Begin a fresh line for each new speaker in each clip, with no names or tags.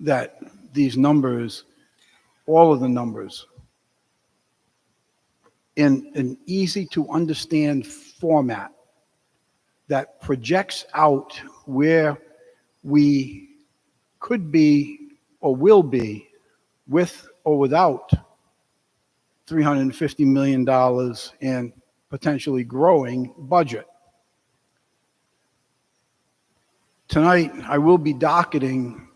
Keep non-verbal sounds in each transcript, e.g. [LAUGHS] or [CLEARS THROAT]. that these numbers, all of the numbers, in an easy-to-understand format that projects out where we could be or will be with or without $350 million in potentially growing budget. Tonight, I will be docketing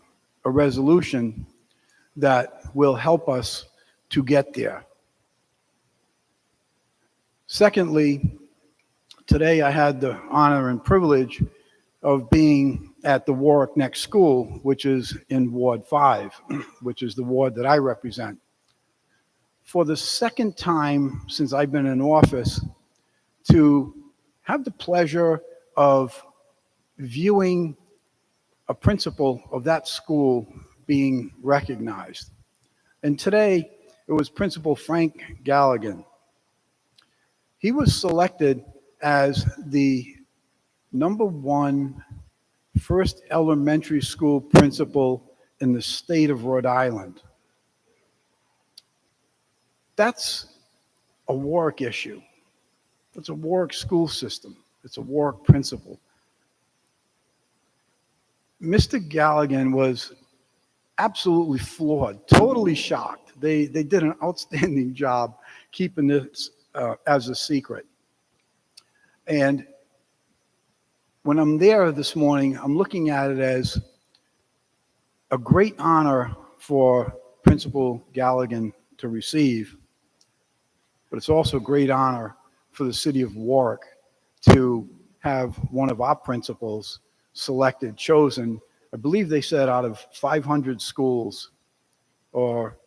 a resolution that will help us to get there. Secondly, today I had the honor and privilege of being at the Warwick Next School, which is in Ward 5, [CLEARS THROAT] which is the ward that I represent. For the second time since I've been in office, to have the pleasure of viewing a principal of that school being recognized. And today, it was Principal Frank Galligan. He was selected as the number one first elementary school principal in the state of Rhode Island. That's a Warwick issue. It's a Warwick school system. It's a Warwick principal. Mr. Galligan was absolutely floored, totally shocked. They, they did an outstanding [LAUGHS] job keeping this uh, as a secret. And when I'm there this morning, I'm looking at it as a great honor for Principal Galligan to receive, but it's also a great honor for the city of Warwick to have one of our principals selected, chosen, I believe they said out of 500 schools or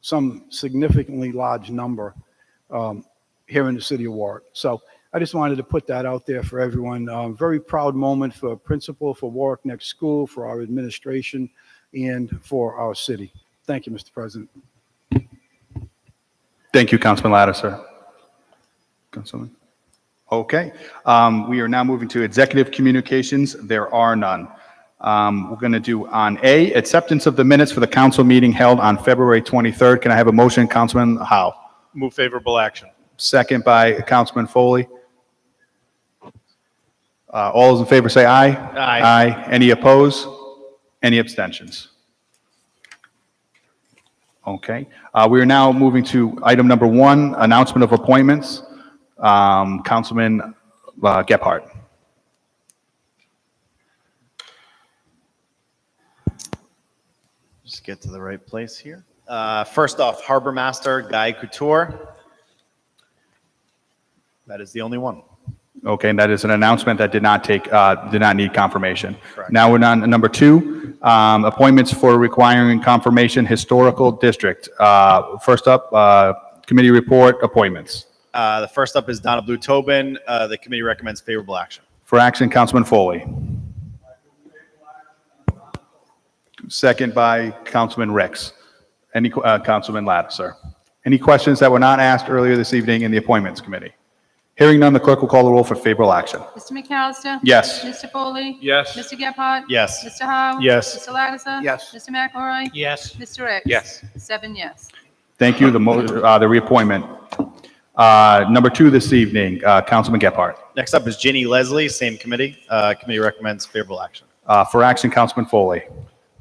some significantly large number um, here in the city of Warwick. So I just wanted to put that out there for everyone. Uh, Very proud moment for principal, for Warwick Next School, for our administration, and for our city. Thank you, Mr. President.
Thank you, Councilman Lattiser. Councilman? Okay, um, we are now moving to executive communications. There are none. Um, we're going to do on A, acceptance of the minutes for the council meeting held on February 23rd. Can I have a motion, Councilman Howe?
Move favorable action.
Second by Councilman Foley. Uh, all those in favor say aye.
Aye.
Aye. Any opposed? Any abstentions? Okay, uh, we are now moving to item number one, announcement of appointments. Um, Councilman uh, Gephardt.
Just get to the right place here. Uh, First off, Harbor Master Guy Couture. That is the only one.
Okay, and that is an announcement that did not take, uh, did not need confirmation.
Correct.
Now we're on to number two, um, appointments for requiring confirmation, Historical District. Uh, First up, uh, committee report appointments.
Uh, The first up is Donna Blue Tobin. Uh, The committee recommends favorable action.
For action, Councilman Foley. Second by Councilman Rex. Any, uh, Councilman Lattiser. Any questions that were not asked earlier this evening in the Appointments Committee? Hearing none, the clerk will call the roll for favorable action.
Mr. McAllister?
Yes.
Mr. Foley?
Yes.
Mr. Gephardt?
Yes.
Mr. Howe?
Yes.
Mr. Lattiser?
Yes.
Mr. McElroy?
Yes.
Mr. Ricks?
Yes.
Seven yes.
Thank you, the, mo- uh, the reappointment. Uh, Number two this evening, uh, Councilman Gephardt.
Next up is Ginny Leslie, same committee. Uh, Committee recommends favorable action.
Uh, For action, Councilman Foley.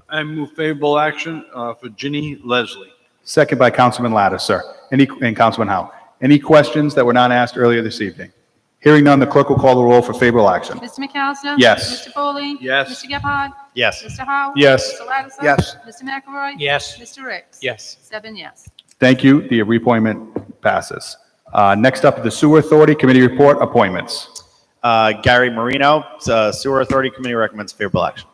I move favorable action uh, for Ginny Leslie.
Second by Councilman Lattiser. Any, and Councilman Howe. Any questions that were not asked earlier this evening? Hearing none, the clerk will call the roll for favorable action.
Mr. McAllister?
Yes.
Mr. Foley?
Yes.
Mr. Gephardt?
Yes.
Mr. Howe?
Yes.
Mr. Lattiser?
Yes.
Mr. McElroy?
Yes.
Mr. Ricks?
Yes.
Seven yes.
Thank you. The reappointment passes. Uh, Next up, the Sewer Authority Committee Report Appointments.
Uh, Gary Marino, uh, Sewer Authority Committee recommends favorable action.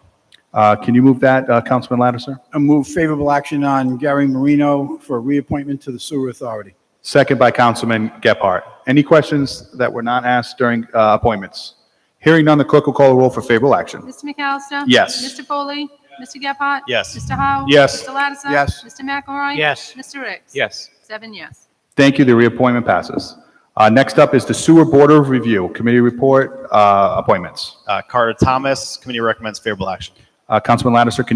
Uh, Can you move that, uh, Councilman Lattiser?
I move favorable action on Gary Marino for reappointment to the Sewer Authority.
Second by Councilman Gephardt. Any questions that were not asked during uh, appointments? Hearing none, the clerk will call the roll for favorable action.
Mr. McAllister?
Yes.
Mr. Foley? Mr. Gephardt?
Yes.
Mr. Howe?
Yes.
Mr. Lattiser?
Yes.
Mr. McElroy?
Yes.
Mr. Ricks?
Yes.
Seven yes.
Thank you. The reappointment passes. Uh, Next up is the Sewer Board of Review Committee Report uh, Appointments.
Uh, Carter Thomas, committee recommends favorable action.
Uh, Councilman Lattiser, can